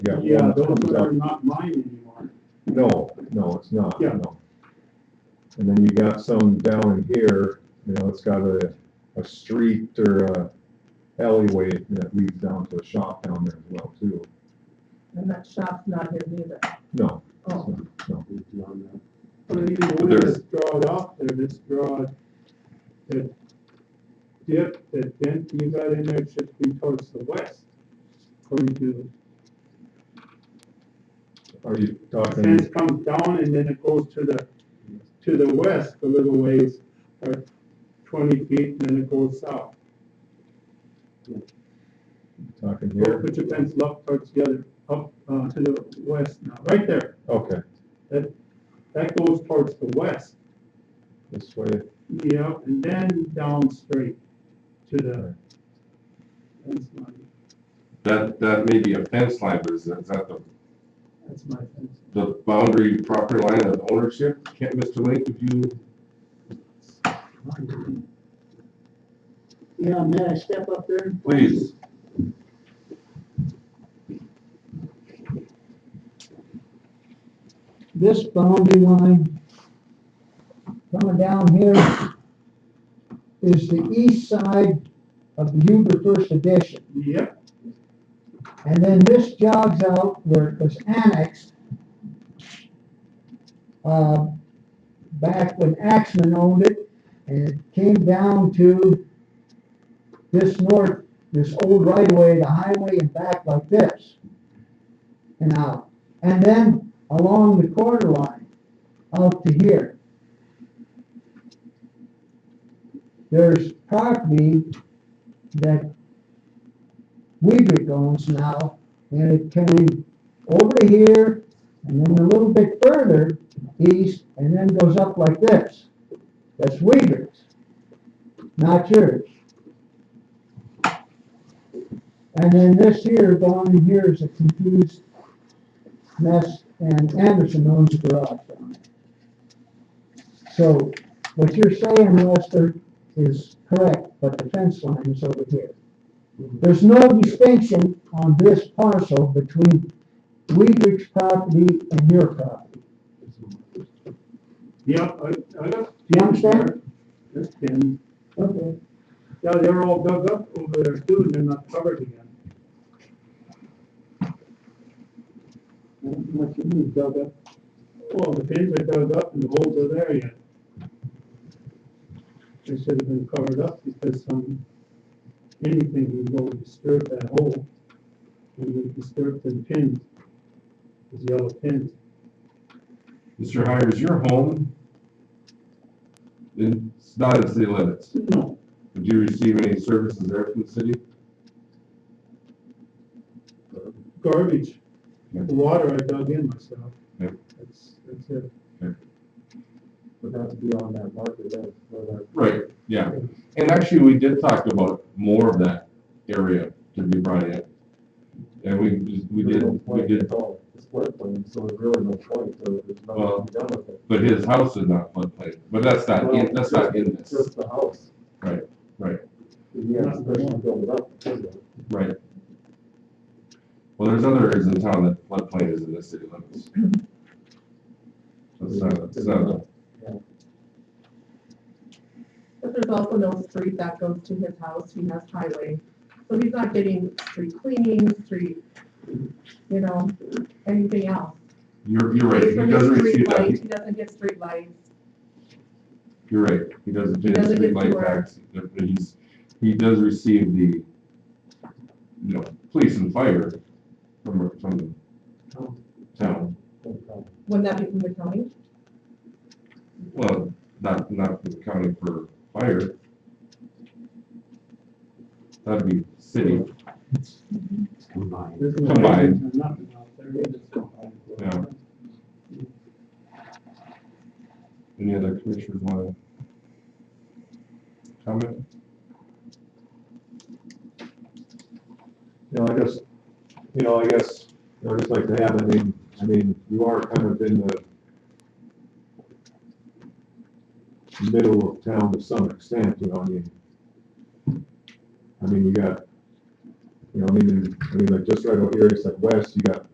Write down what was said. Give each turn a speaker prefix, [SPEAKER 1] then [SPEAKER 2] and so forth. [SPEAKER 1] Yeah.
[SPEAKER 2] Yeah,
[SPEAKER 1] one
[SPEAKER 2] those
[SPEAKER 1] comes up.
[SPEAKER 2] are not mine anymore.
[SPEAKER 1] No, no, it's not,
[SPEAKER 2] Yeah.
[SPEAKER 1] no. And then you got some down in here, you know, it's got a, a street or a alleyway that leads down to a shop down there as well too.
[SPEAKER 3] And that shop's not here neither.
[SPEAKER 1] No, it's
[SPEAKER 3] Oh,
[SPEAKER 1] not, no,
[SPEAKER 2] But even the one that's drawed off there, this draw, that dip, that dent you got in there should be towards the west. According to,
[SPEAKER 1] are you
[SPEAKER 2] the
[SPEAKER 1] talking,
[SPEAKER 2] fence comes down and then it goes to the, to the west a little ways, or twenty feet, and then it goes south.
[SPEAKER 1] talking here?
[SPEAKER 2] Put your fence up towards the other, up, uh, to the west now, right there,
[SPEAKER 1] Okay,
[SPEAKER 2] that goes towards the west.
[SPEAKER 1] this way,
[SPEAKER 2] Yeah, and then down straight to the fence line.
[SPEAKER 4] That, that may be a fence line, but is that, is that the,
[SPEAKER 2] That's my fence.
[SPEAKER 4] the boundary property line of ownership? Can't, Mr. Link, if you,
[SPEAKER 5] Yeah, may I step up there?
[SPEAKER 4] please,
[SPEAKER 5] This boundary line coming down here is the east side of the Huber First Edition.
[SPEAKER 2] Yep,
[SPEAKER 5] And then this jogs out where it was annexed, uh, back when Axman owned it, and it came down to this north, this old right-of-way, the highway, and back like this, and out. And then along the quarter line, out to here. There's property that Weaver owns now, and it came over here, and then a little bit further east, and then goes up like this. That's Weaver's, not yours. And then this here, down in here is a confused mess, and Anderson owns the garage down there. So, what you're saying, Lester, is correct, but the fence line is over here. There's no distinction on this parcel between Weidrich's property and your property.
[SPEAKER 2] yep, I, I got.
[SPEAKER 5] You understand?
[SPEAKER 2] That's been,
[SPEAKER 5] Okay.
[SPEAKER 2] yeah, they're all dug up over there too, and they're not covered again.
[SPEAKER 5] What you mean, dug up?
[SPEAKER 2] Well, the pins are dug up and the holes are there yet. They should have been covered up because some, anything can go and disturb that hole. And it disturbed the pins, those yellow pins.
[SPEAKER 4] Mr. Hires, your home, in- it's not in city limits.
[SPEAKER 2] No,
[SPEAKER 4] Did you receive any services there from the city?
[SPEAKER 2] garbage,
[SPEAKER 4] Yeah.
[SPEAKER 2] the water I dug in myself.
[SPEAKER 4] Yeah.
[SPEAKER 2] That's, that's it.
[SPEAKER 6] would have to be on that market, that, for that
[SPEAKER 4] Right, yeah. And actually, we did talk about more of that area to be brought in. And we, we
[SPEAKER 6] There's
[SPEAKER 4] did,
[SPEAKER 6] no
[SPEAKER 4] we
[SPEAKER 6] point
[SPEAKER 4] did,
[SPEAKER 6] at all. It's floodplain, so there's really no point, so there's
[SPEAKER 4] Well-
[SPEAKER 6] nothing to be done with it.
[SPEAKER 4] but his house is not floodplain, but that's not, in- that's not in
[SPEAKER 6] It's
[SPEAKER 4] this.
[SPEAKER 6] Just the house.
[SPEAKER 4] Right, right.
[SPEAKER 6] You have to especially build it up. because of it.
[SPEAKER 4] Right. Well, there's other areas in town that floodplain is in the city limits. That's not, that's not,
[SPEAKER 3] But there's also no street that goes to his house, he has highway. So he's not getting street cleaning, street, you know, anything else.
[SPEAKER 4] you're, you're right, he
[SPEAKER 3] doesn't
[SPEAKER 4] doesn't
[SPEAKER 3] get
[SPEAKER 4] receive
[SPEAKER 3] streetlights,
[SPEAKER 4] that,
[SPEAKER 3] He doesn't get street lights.
[SPEAKER 4] you're right, he doesn't
[SPEAKER 3] He
[SPEAKER 4] get
[SPEAKER 3] doesn't
[SPEAKER 4] street
[SPEAKER 3] get
[SPEAKER 4] light
[SPEAKER 3] sewer.
[SPEAKER 4] tax, but he's, he does receive the, you know, police and fire from, from the town,
[SPEAKER 6] No problem.
[SPEAKER 3] Wouldn't that be from the county?
[SPEAKER 4] well, not, not from the county for fire. That'd be city,
[SPEAKER 2] There's no
[SPEAKER 4] Combined.
[SPEAKER 2] lights or nothing out there, it's just combined.
[SPEAKER 4] Yeah. any other commissioners want to comment?
[SPEAKER 1] you know, I just, you know, I guess, you know, just like to have, I mean, I mean, you are kind of in the middle of town to some extent, you know, I mean, I mean, you got, you know, I mean, I mean, like just right over here, it's like west, you got